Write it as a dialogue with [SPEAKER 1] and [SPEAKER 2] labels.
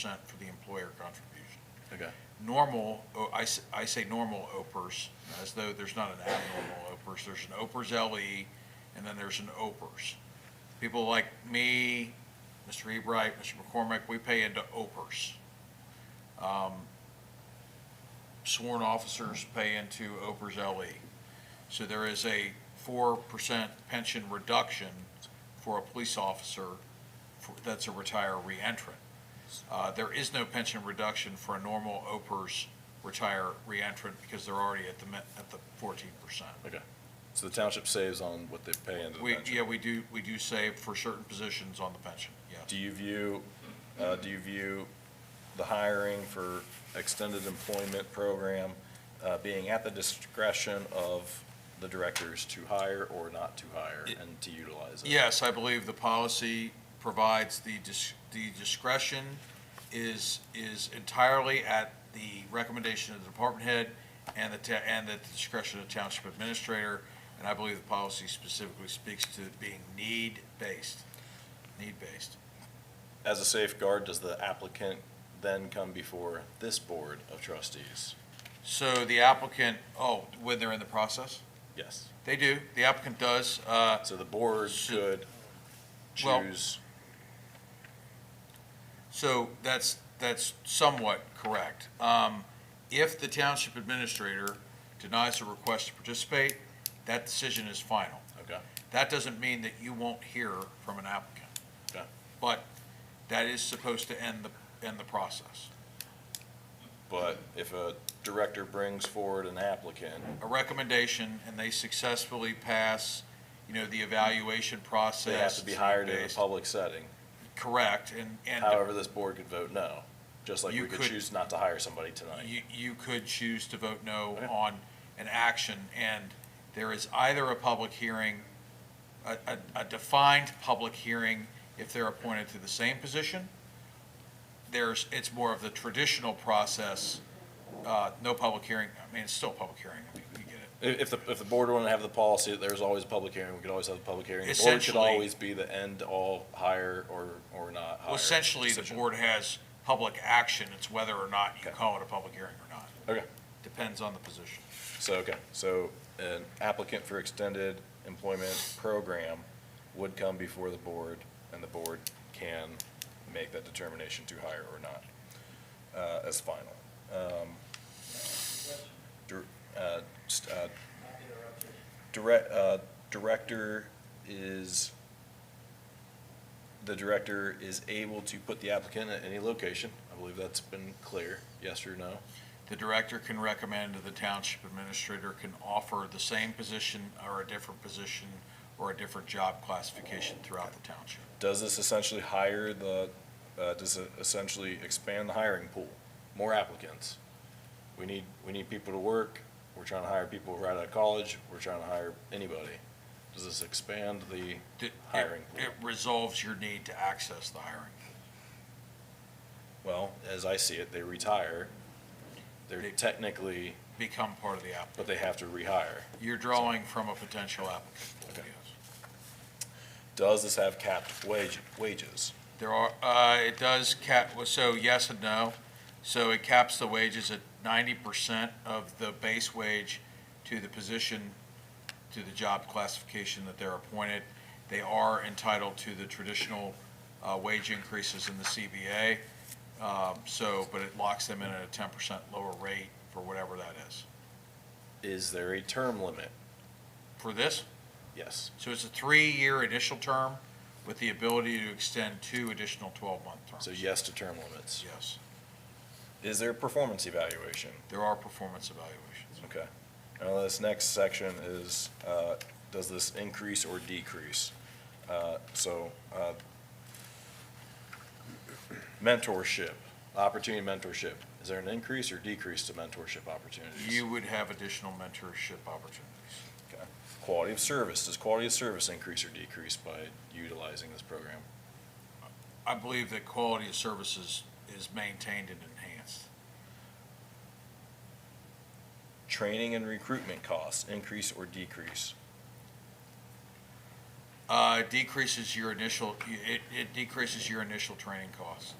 [SPEAKER 1] percent for the employer contribution.
[SPEAKER 2] Okay.
[SPEAKER 1] Normal, oh, I, s- I say normal OPERS, as though there's not an abnormal OPERS. There's an E OPERS LE, and then there's an OPERS. People like me, Mr. Ebright, Mr. McCormick, we pay into OPERS. Um, Sworn officers pay into E OPERS LE. So there is a four percent pension reduction for a police officer for- that's a retiree entrant. Uh, There is no pension reduction for a normal OPERS retire reentrant because they're already at the, min- at the fourteen percent.
[SPEAKER 2] Okay. So the township saves on what they pay into the
[SPEAKER 1] We,
[SPEAKER 2] pension?
[SPEAKER 1] yeah, we do, we do save for certain positions on the pension, yes.
[SPEAKER 2] Do you view, uh, do you view the hiring for extended employment program uh, being at the discretion of the directors to hire or not to hire
[SPEAKER 1] It-
[SPEAKER 2] and to utilize it?
[SPEAKER 1] Yes, I believe the policy provides the dis- the discretion is, is entirely at the recommendation of the department head and the, ta- and at the discretion of the township administrator. And I believe the policy specifically speaks to it being need-based, need-based.
[SPEAKER 2] As a safeguard, does the applicant then come before this board of trustees?
[SPEAKER 1] So the applicant, oh, when they're in the process?
[SPEAKER 2] Yes.
[SPEAKER 1] They do, the applicant does. Uh,
[SPEAKER 2] So the board could
[SPEAKER 1] Well-
[SPEAKER 2] choose,
[SPEAKER 1] So that's, that's somewhat correct. Um, If the township administrator denies a request to participate, that decision is final.
[SPEAKER 2] okay,
[SPEAKER 1] That doesn't mean that you won't hear from an applicant.
[SPEAKER 2] Okay.
[SPEAKER 1] But that is supposed to end the, end the process.
[SPEAKER 2] but if a director brings forward an applicant,
[SPEAKER 1] A recommendation, and they successfully pass, you know, the evaluation process.
[SPEAKER 2] they have to be hired in a
[SPEAKER 1] based-
[SPEAKER 2] public setting.
[SPEAKER 1] Correct, and, and.
[SPEAKER 2] However, this board could vote no, just like we
[SPEAKER 1] You
[SPEAKER 2] could
[SPEAKER 1] could-
[SPEAKER 2] choose not to hire somebody tonight.
[SPEAKER 1] Uh, You, you could choose to vote no
[SPEAKER 2] Okay.
[SPEAKER 1] on an action, and there is either a public hearing, a, a, a defined public hearing if they're appointed to the same position. There's, it's more of the traditional process, uh, no public hearing, I mean, it's still a public hearing, I mean, we get it.
[SPEAKER 2] If, if the, if the board wanted to have the policy, that there's always a public hearing, we could always have a public hearing. The board should
[SPEAKER 1] Essentially-
[SPEAKER 2] always be the end all hire or, or not hire.
[SPEAKER 1] Well, essentially, the
[SPEAKER 2] Oh, decision.
[SPEAKER 1] board has public action, it's whether or not you
[SPEAKER 2] Okay.
[SPEAKER 1] call it a public hearing or not.
[SPEAKER 2] Okay.
[SPEAKER 1] Depends on the position.
[SPEAKER 2] So, okay, so an applicant for extended employment program would come before the board, and the board can make that determination to hire or not uh, as final. Um, dir- uh, st- uh, direct- uh, Director is, the director is able to put the applicant at any location. I believe that's been clear, yes or no?
[SPEAKER 1] The director can recommend, the township administrator can offer the same position or a different position or a different job classification throughout the township.
[SPEAKER 2] Does this essentially hire the, uh, does it essentially expand the hiring pool? More applicants? We need, we need people to work. We're trying to hire people right out of college. We're trying to hire anybody. Does this expand the,
[SPEAKER 1] It- it-
[SPEAKER 2] Hiring pool.
[SPEAKER 1] It resolves your need to access the hiring.
[SPEAKER 2] well, as I see it, they retire. They're technically,
[SPEAKER 1] Become part of the app.
[SPEAKER 2] but they have to rehire.
[SPEAKER 1] You're drawing from a potential applicant. pool,
[SPEAKER 2] Okay.
[SPEAKER 1] yes.
[SPEAKER 2] Does this have capped wage, wages?
[SPEAKER 1] There are, uh, it does cap, well, so yes and no. So it caps the wages at ninety percent of the base wage to the position, to the job classification that they're appointed. They are entitled to the traditional uh, wage increases in the CBA. Um, So, but it locks them in at a ten percent lower rate for whatever that is.
[SPEAKER 2] Is there a term limit?
[SPEAKER 1] For this,
[SPEAKER 2] Yes.
[SPEAKER 1] so it's a three-year initial term with the ability to extend two additional twelve-month terms.
[SPEAKER 2] So yes to term limits.
[SPEAKER 1] Yes,
[SPEAKER 2] Is there a performance evaluation?
[SPEAKER 1] there are performance evaluations.
[SPEAKER 2] Okay. Now, this next section is, uh, does this increase or decrease? Uh, So uh, mentorship, opportunity mentorship, is there an increase or decrease to mentorship opportunities?
[SPEAKER 1] you would have additional mentorship opportunities.
[SPEAKER 2] Okay. Quality of service, does quality of service increase or decrease by utilizing this program?
[SPEAKER 1] I believe that quality of services is maintained and enhanced.
[SPEAKER 2] Training and recruitment costs, increase or decrease?
[SPEAKER 1] Uh, it decreases your initial, it, it decreases your initial training costs.